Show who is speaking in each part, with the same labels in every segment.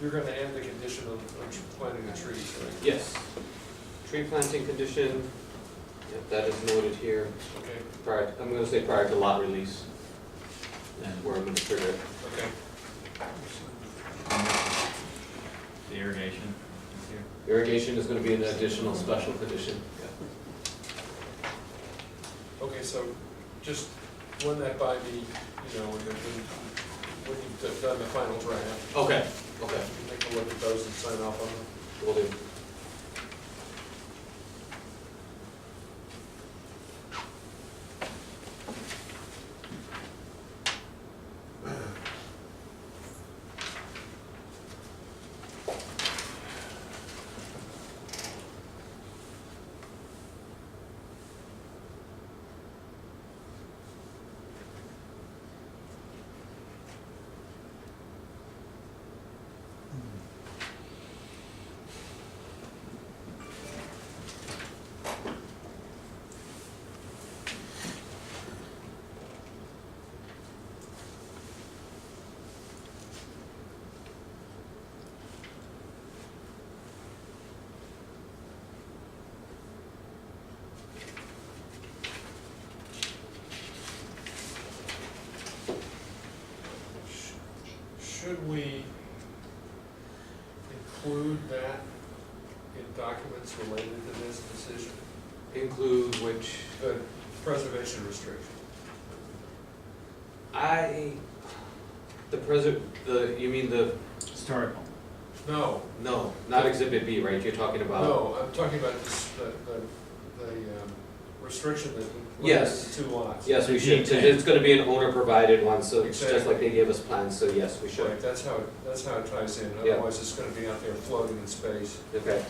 Speaker 1: You're gonna add the condition of, of planting the trees, right?
Speaker 2: Yes. Tree planting condition, yep, that is noted here,
Speaker 1: Okay,
Speaker 2: prior, I'm gonna say prior to lot release. And we're gonna trigger it.
Speaker 1: okay.
Speaker 3: The irrigation is here.
Speaker 2: Irrigation is gonna be an additional special condition.
Speaker 1: Okay, so just run that by me, you know, when, the- when, when you've done the final draft,
Speaker 2: Okay, okay,
Speaker 1: you can take a look at those and sign off on them.
Speaker 2: will do.
Speaker 1: Sh- Should we include that in documents related to this decision?
Speaker 2: Include which,
Speaker 1: The preservation restriction.
Speaker 2: I, the present, the, you mean the,
Speaker 3: Historical.
Speaker 1: No,
Speaker 2: no, not exhibit B, right, you're talking about?
Speaker 1: no, I'm talking about this, the, the, the um, restriction that
Speaker 2: Yes.
Speaker 1: limits the two lots.
Speaker 2: Yes, we
Speaker 3: The
Speaker 2: should, 'cause
Speaker 3: G10.
Speaker 2: it's gonna be an owner-provided one, so it's just
Speaker 1: Exactly.
Speaker 2: like they gave us plans, so yes, we should.
Speaker 1: Right, that's how, it- that's how it ties in,
Speaker 2: Yeah.
Speaker 1: otherwise it's gonna be out there floating in space.
Speaker 2: Okay,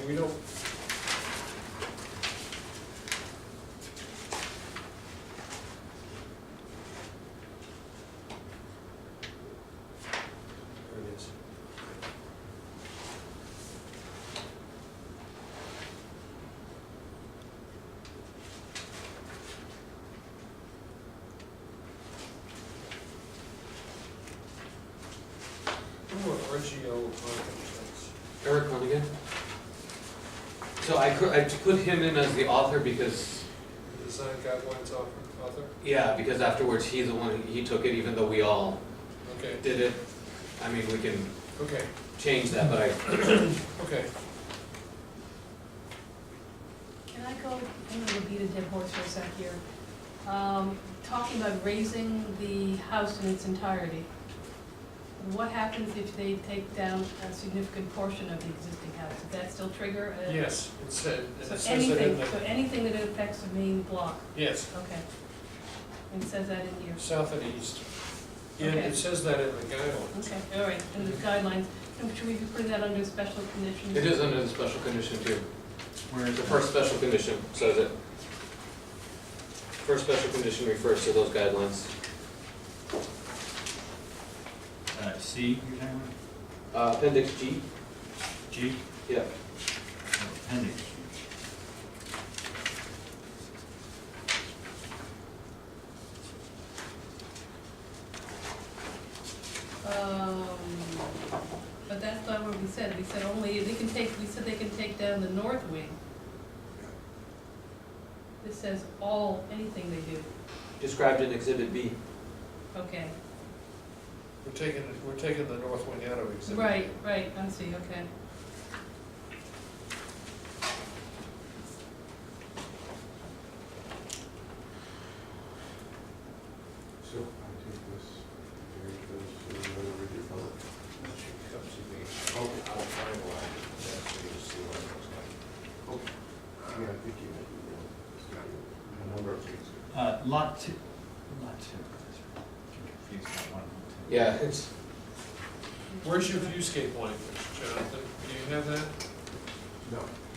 Speaker 1: And We don't. There it is. Who are RGO architects?
Speaker 2: Eric Hunnigan? So I cou- I put him in as the author because,
Speaker 1: The Design guidelines author, author?
Speaker 2: yeah, because afterwards he's the one, he took it even though we all
Speaker 1: Okay,
Speaker 2: did it. I mean, we can
Speaker 1: okay,
Speaker 2: change that, but I,
Speaker 1: okay.
Speaker 4: Can I go, I'm gonna beat a dead horse for a sec here. Um, talking about raising the house in its entirety. What happens if they take down a significant portion of the existing house? Does that still trigger a?
Speaker 1: Yes, it said, it
Speaker 4: So
Speaker 1: says it in
Speaker 4: anything, so
Speaker 1: the,
Speaker 4: anything that affects the main block,
Speaker 1: yes,
Speaker 4: okay. And it says that in here,
Speaker 1: south and east. Yeah,
Speaker 4: Okay.
Speaker 1: it says that in the guidelines.
Speaker 4: okay, all right, and the guidelines, And should we be putting that under special conditions?
Speaker 2: it is under the special condition too.
Speaker 3: Where is
Speaker 2: The
Speaker 3: it?
Speaker 2: first special condition says it. First special condition refers to those guidelines.
Speaker 3: Uh, C, you're talking
Speaker 2: Uh, Appendix G,
Speaker 3: about? G?
Speaker 2: yeah,
Speaker 3: Appendix.
Speaker 4: Um, but that's not what we said, we said only, they can take, we said they can take down the north wing. This says all, anything they do,
Speaker 2: described in Exhibit B.
Speaker 4: okay,
Speaker 1: We're taking, we're taking the north wing out of exhibit.
Speaker 4: right, right, I see, okay.
Speaker 5: So I take this, Eric goes to another redevelopment.
Speaker 1: That should come to me.
Speaker 5: Okay.
Speaker 1: I'll finalize it, that so you'll see what it looks like.
Speaker 5: Yeah, I think you might be right. It's got A number of things.
Speaker 3: Uh, lot two, lot two. That's right. Confused about one and two.
Speaker 2: Yeah, it's,
Speaker 1: Where's your viewscape language, Jonathan? Do you have that?
Speaker 5: No,